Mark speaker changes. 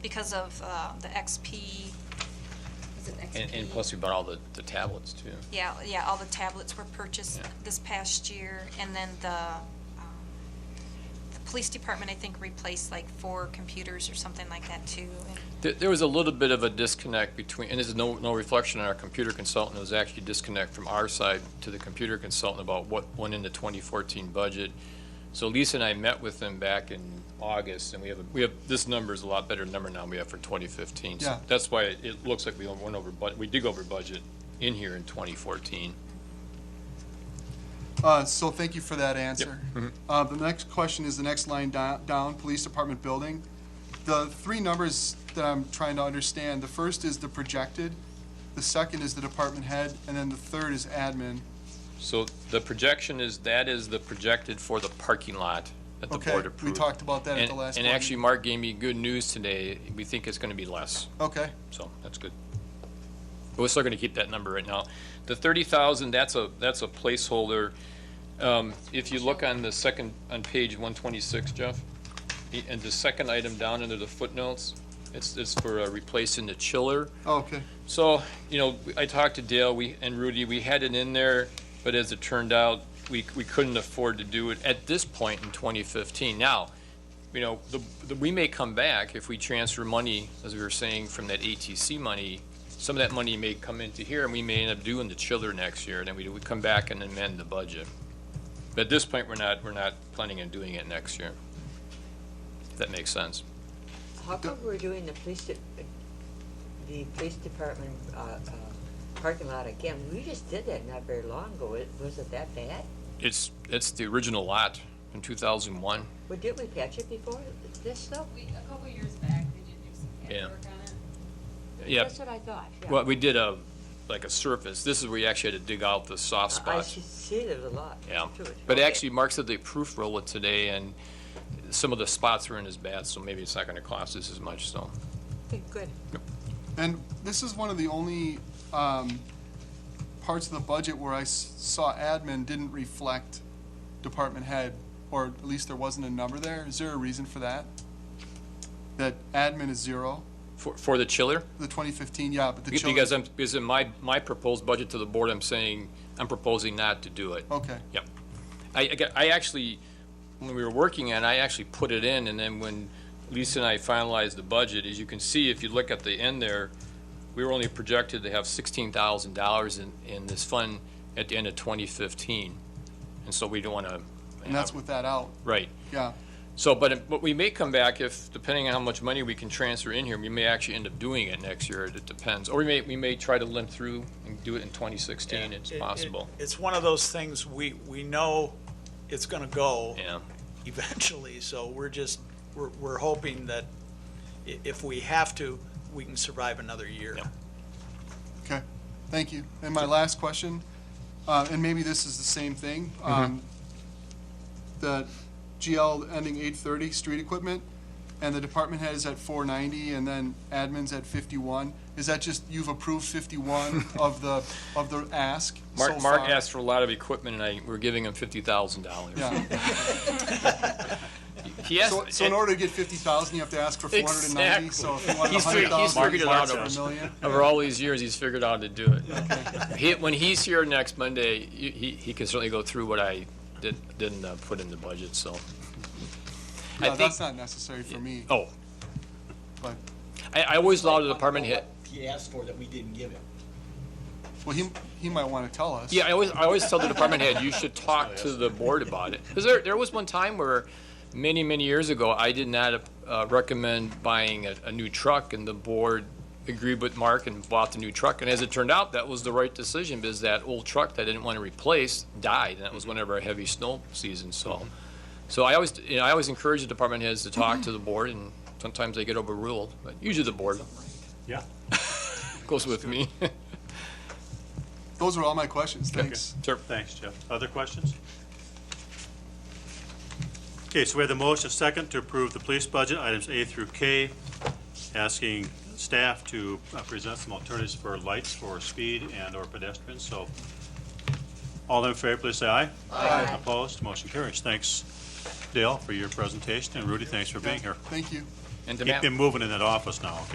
Speaker 1: because of uh, the XP. was it
Speaker 2: And, and
Speaker 1: XP?
Speaker 2: plus we bought all the, the tablets too.
Speaker 1: Yeah, yeah, all the tablets were purchased
Speaker 2: Yeah.
Speaker 1: this past year, and then the, um, the police department, I think, replaced like four computers or something like that too. and-
Speaker 2: There, there was a little bit of a disconnect between, and this is no, no reflection on our computer consultant, it was actually a disconnect from our side to the computer consultant about what went into 2014 budget. So Lisa and I met with them back in August, and we have, a- we have, this number is a lot better number now than we have for 2015. So
Speaker 3: Yeah.
Speaker 2: That's why it- it looks like we went over, but we did go over budget in here in 2014.
Speaker 3: Uh, so thank you for that answer.
Speaker 2: Mm-hmm.
Speaker 3: Uh, the next question is the next line do- down, Police Department Building. The three numbers that I'm trying to understand, the first is the projected, the second is the department head, and then the third is admin.
Speaker 2: So the projection is, that is the projected for the parking lot that the
Speaker 3: Okay,
Speaker 2: board
Speaker 3: we
Speaker 2: approved.
Speaker 3: talked about that at
Speaker 2: And-
Speaker 3: the last
Speaker 2: And
Speaker 3: one.
Speaker 2: actually, Mark gave me good news today. We think it's going to be less,
Speaker 3: Okay,
Speaker 2: so that's good. But we're still going to keep that number right now. The 30,000, that's a, that's a placeholder. Um, If you look on the second, on page 126, Jeff, the- and the second item down under the footnotes, it's, it's for uh, replacing the chiller.
Speaker 3: Oh, okay,
Speaker 2: So, you know, I talked to Dale, we, and Rudy, we had it in there, but as it turned out, we, we couldn't afford to do it at this point in twenty fifteen. Now, you know, the, the, we may come back if we transfer money, as we were saying, from that ATC money. Some of that money may come into here, and we may end up doing the chiller next year, and then we, do- we come back and amend the budget. But at this point, we're not, we're not planning on doing it next year. If that makes sense.
Speaker 4: How come we're doing the police, de- the police department uh, uh, parking lot again? We just did that not very long ago. It- Was it that bad?
Speaker 2: It's, it's the original lot in two thousand one.
Speaker 4: Well, did we patch it before this though?
Speaker 5: We, a couple years back, they did do some
Speaker 2: Yeah.
Speaker 5: patchwork on it.
Speaker 2: Yeah,
Speaker 4: That's what I thought, yeah.
Speaker 2: Well, we did a, like a surface. This is where you actually had to dig out the soft
Speaker 4: I- I
Speaker 2: spots.
Speaker 4: should see there was a lot
Speaker 2: Yeah.
Speaker 4: to it.
Speaker 2: But
Speaker 4: Okay.
Speaker 2: actually, Mark said they proof roll it today and some of the spots weren't as bad, so maybe it's not gonna cost us as much, so.
Speaker 4: Okay, Good.
Speaker 3: and this is one of the only, um, parts of the budget where I s- saw admin didn't reflect department head, or at least there wasn't a number there. Is there a reason for that? That admin is zero?
Speaker 2: For, for the chiller?
Speaker 3: The 2015, yeah, but the children.
Speaker 2: Because I'm, because in my, my proposed budget to the board, I'm saying, I'm proposing not to do it.
Speaker 3: Okay,
Speaker 2: Yep. I, I got- I actually, when we were working on, it, I actually put it in, and then when Lisa and I finalized the budget, as you can see, if you look at the end there, we were only projected to have sixteen thousand dollars in, in this fund at the end of twenty fifteen. And so we don't want to.
Speaker 3: and that's with that out,
Speaker 2: Right.
Speaker 3: yeah.
Speaker 2: So, but, it- but we may come back if, depending on how much money we can transfer in here, we may actually end up doing it next year. It depends. Or we may, we may try to limp through and do it in twenty sixteen.
Speaker 6: Yeah,
Speaker 2: It's
Speaker 6: it- it-
Speaker 2: possible.
Speaker 6: It's one of those things, we, we know it's gonna go
Speaker 2: Yeah.
Speaker 6: eventually, so we're just, we're, we're hoping that i- if we have to, we can survive another year.
Speaker 2: Yep.
Speaker 3: Okay, thank you. And my last question, uh, and maybe this is the same thing. um, The GL ending 830, street equipment, and the department head is at 490, and then admin's at 51. Is that just, you've approved 51 of the, of the ask so
Speaker 2: Mark, Mark
Speaker 3: far?
Speaker 2: asked for a lot of equipment, and I, we're giving him fifty thousand dollars.
Speaker 3: Yeah,
Speaker 2: He asked,
Speaker 3: so, so in order to get 50,0and, you have to ask for 490, so if you want
Speaker 2: He's figured- he's
Speaker 3: 100,000,
Speaker 2: figured
Speaker 3: you
Speaker 2: it out
Speaker 3: ask for a
Speaker 2: almost.
Speaker 3: million.
Speaker 2: over all these years, he's figured out how to do it. He, when he's here next Monday, he, he- he can certainly go through what I did, didn't uh, put in the budget, so. I
Speaker 3: No, that's
Speaker 2: think-
Speaker 3: not necessary for me,
Speaker 2: Oh,
Speaker 3: but,
Speaker 2: I, I always allow the department head,
Speaker 7: He asked for that we didn't give him.
Speaker 3: well, he, he might want to tell us.
Speaker 2: yeah, I always, I always tell the department head, you should talk to the board about it. Because there, there was one time where, many, many years ago, I did not uh, recommend buying a, a new truck, and the board agreed with Mark and bought the new truck. And as it turned out, that was the right decision, because that old truck that I didn't want to replace died, and that was whenever a heavy snow season, so. So I always, you know, I always encourage the department heads to talk to the board, and sometimes they get overruled, but usually the board.
Speaker 8: Yeah.
Speaker 2: Goes with me.
Speaker 3: Those are all my questions, thanks.
Speaker 2: Sure.
Speaker 8: Thanks, Jeff. Other questions? Okay, so we have the motion second to approve the police budget, items A through K, asking staff to uh, present some alternatives for lights for speed and/or pedestrians, so. All in favor, please say aye. Aye. Opposed, motion carries. Thanks, Dale, for your presentation, and Rudy, thanks for being here.
Speaker 3: Thank you.
Speaker 2: And to
Speaker 8: Keep
Speaker 2: Matt-
Speaker 8: them moving in that office now, okay?